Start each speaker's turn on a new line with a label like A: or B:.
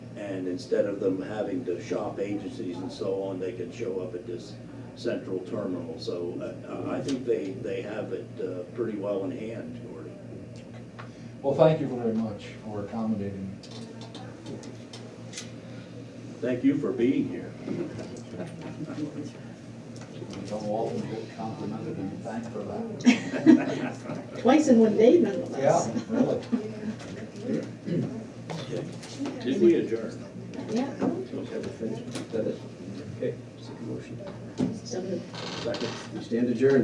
A: And instead of them having to shop agencies and so on, they can show up at this central terminal. So uh, I I think they, they have it uh, pretty well in hand, Gordy.
B: Well, thank you very much for accommodating.
A: Thank you for being here.
B: Don't often get complimented and thanked for that.
C: Twice in one day nonetheless.
B: Yeah, really.
A: Did we adjourn?
C: Yeah.
D: That is, okay, second motion.
C: So moved.
D: Second. We stand adjourned.